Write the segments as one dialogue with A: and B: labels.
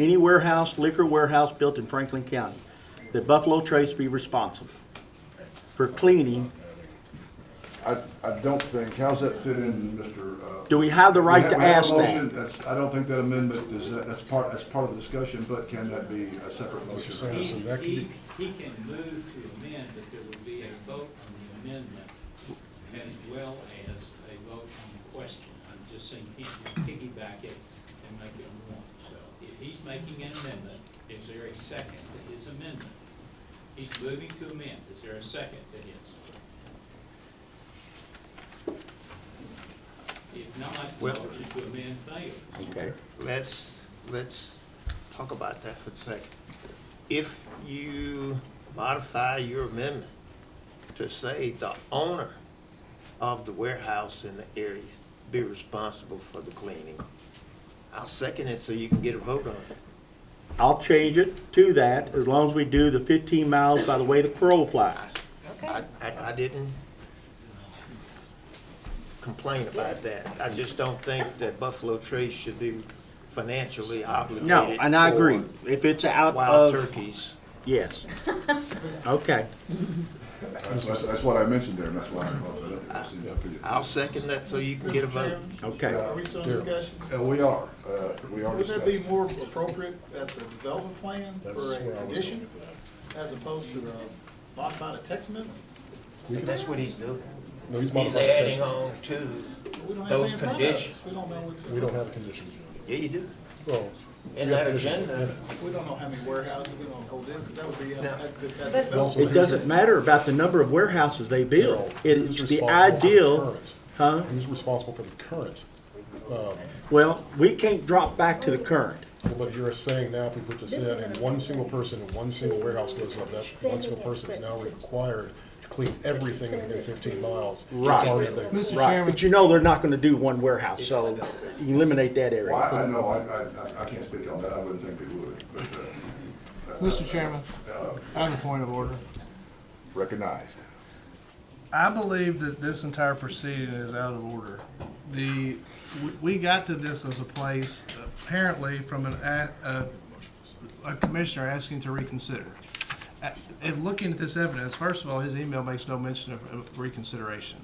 A: any warehouse, liquor warehouse built in Franklin County, that Buffalo Trace be responsible for cleaning.
B: I, I don't think, how's that fit in, Mr.? uh,
A: Do we have the
B: we
A: right
B: have-
A: to
B: we have a
A: ask
B: motion.
A: that?
B: That's, I don't think that amendment is, uh, that's part, that's part of the discussion, but can that be a separate motion?
C: Sanderson,
D: He-
C: that can be-
D: He he can move to amend, but there will be a vote on the amendment as well as a vote on the question. I'm just saying, he can piggyback it and make it one. So if he's making an amendment, is there a second to his amendment? He's moving to amend, is there a second to his? If not, the
E: Well-
D: motion to amend fails.
A: Okay.
E: Let's, let's talk about that for a second. If you modify your amendment to say the owner of the warehouse in the area be responsible for the cleaning, I'll second it so you can get a vote on it.
A: I'll change it to that as long as we do the fifteen miles by the way the crow flies.
E: I,
F: Okay,
E: I, I didn't complain about that. I just don't think that Buffalo Trace should be financially obligated.
A: No, and I
E: for
A: agree. If it's out
E: Wild
A: of,
E: turkeys.
A: yes. Okay.
B: That's, that's- that's what I mentioned there, and that's why I brought that up. It's in the opinion.
E: I'll second that so you can get a vote.
A: Okay.
G: Um, Are we still in discussion?
B: Uh, we are, uh, we are
G: Would that be
B: discussing.
G: more appropriate at the development plan
C: That's
G: for
C: where I
G: a
C: was
G: condition
C: going with
G: as opposed to the modified text amendment?
E: But that's what he's doing.
C: No, he's
E: He's
C: modified the
E: adding
C: text.
E: on to,
G: We don't have
E: Those
G: anything in front of us.
E: conditions.
G: We don't know what's,
C: We don't
G: we
C: have a condition. Judge.
E: yeah, you do.
C: Well,
E: In that agenda,
G: don't know how many warehouses we don't hold in, because that would be at,
E: No.
G: at, at the
F: But-
G: development.
C: also
A: It doesn't matter about the number of warehouses they build. It's
C: who's
A: the
C: responsible for the
A: ideal,
C: current?
A: huh?
C: Who's responsible for the current? Um,
A: Well, we can't drop back to the current.
C: But you're saying now if we put this
F: This
C: in
F: is
C: and
F: an-
C: one single person in one single warehouse goes up, that one single person is now required to clean everything within fifteen miles. It's
A: Right.
C: already there.
A: Right, but you know they're not gonna do one warehouse, so eliminate that
B: Well,
A: area.
B: I, I know, I, I, I- I can't speak on that, I wouldn't think they would, but, uh,
H: Mr. Chairman, I have a point of order.
B: recognized.
H: I believe that this entire proceeding is out of order. The, we- we got to this as a place, apparently from an, a, a- a commissioner asking to reconsider. Uh, And looking at this evidence, first of all, his email makes no mention of- of reconsideration.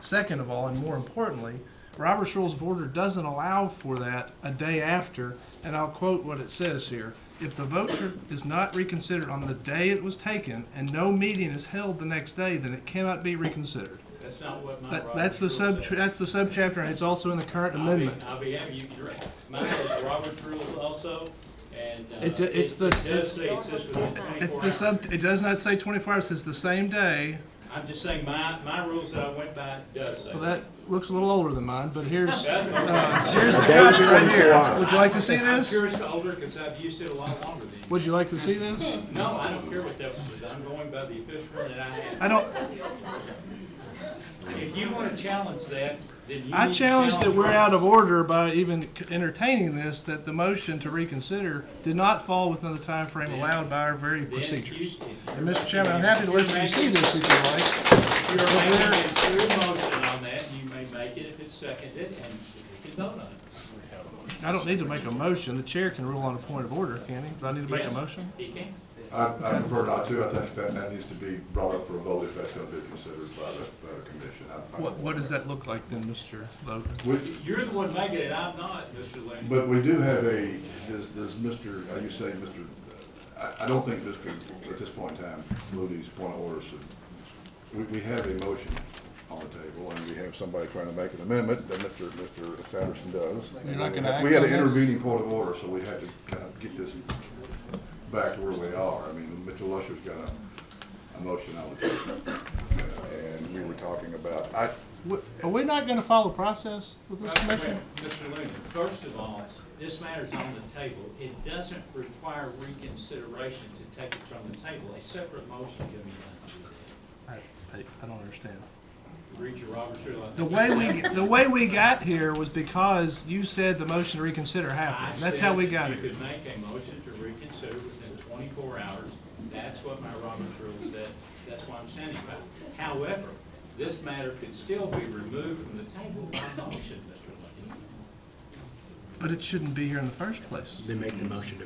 H: Second of all, and more importantly, Robert's Rules of Order doesn't allow for that a day after, and I'll quote what it says here. If the vote is not reconsidered on the day it was taken and no meeting is held the next day, then it cannot be reconsidered.
D: That's not what my.
H: That,
D: Robert's
H: that's the
D: rule
H: sub,
D: says.
H: that's the subchapter, and it's also in the current
D: I'll be-
H: amendment.
D: I'll be happy, you can, my is Robert's rules also, and. uh,
H: It's a- it's
D: it-
H: the-
D: It does say it's just within
H: It's
D: twenty-four
H: the
D: hours.
H: sub, it does not say twenty-four hours, it's the same day.
D: I'm just saying, my, my rules that I went by does say.
H: Well,
D: that.
H: that looks a little older than mine, but here's,
D: That-
H: uh, here's the copy right
A: 24
H: here.
A: hours.
H: Would you like to uh, see
D: I'm
H: this?
D: curious to older, because I've used it a lot longer than you.
H: Would you like to see this?
D: No, I don't care what that was, I'm going by the official one that I had.
H: I don't,
D: If you want to challenge that, then you.
H: I
D: need to
H: challenge that we're
D: Robert's
H: out of order by even c- entertaining this, that the motion to reconsider did not fall within the time frame allowed by our very procedures. And Mr. Chairman, I'm happy to let you see this if you like.
D: You're making a clear motion on that, you may make it if it's seconded, and we can vote on it.
H: I don't need to make a motion. The chair can rule on a point of order, can he? Do I need to make a
D: Yes.
H: motion?
D: He can.
B: I, I prefer not to, I think that, that needs to be brought up for a vote if that's gonna be considered by the, by the commission. I- I-
H: What, what does that look like then, Mr. Logan?
B: We-
D: You're the one making it, I'm not, Mr. Lane.
B: But we do have a, does, does Mr., are you saying Mr., I, I don't think Mr., at this point in time, Moody's point of order should, we, we have a motion on the table, and we have somebody trying to make an amendment, that Mr. Mr. Sanderson does.
H: You're not gonna act
B: We had an
H: on this?
B: intervening point of order, so we had to kind of get this back to where we are. I mean, Mr. Lusher's got a, a motion on the table, and we were talking about, I,
H: W- Are we not gonna follow process with this
D: Wait a minute,
H: commission?
D: Mr. Lehman, first of all, this matter's on the table. It doesn't require reconsideration to take it from the table. A separate motion can be done.
H: I, I I don't understand.
D: Read your Robert's rule.
H: The way we, the way we got here was because you said the motion to reconsider happened. That's how we got
D: it. You
H: here.
D: could make a motion to reconsider within twenty-four hours. That's what my Robert's rule said. That's what I'm standing by. However, this matter could still be removed from the table by motion, Mr. Lehman.
H: But it shouldn't be here in the first place.
A: They make the motion to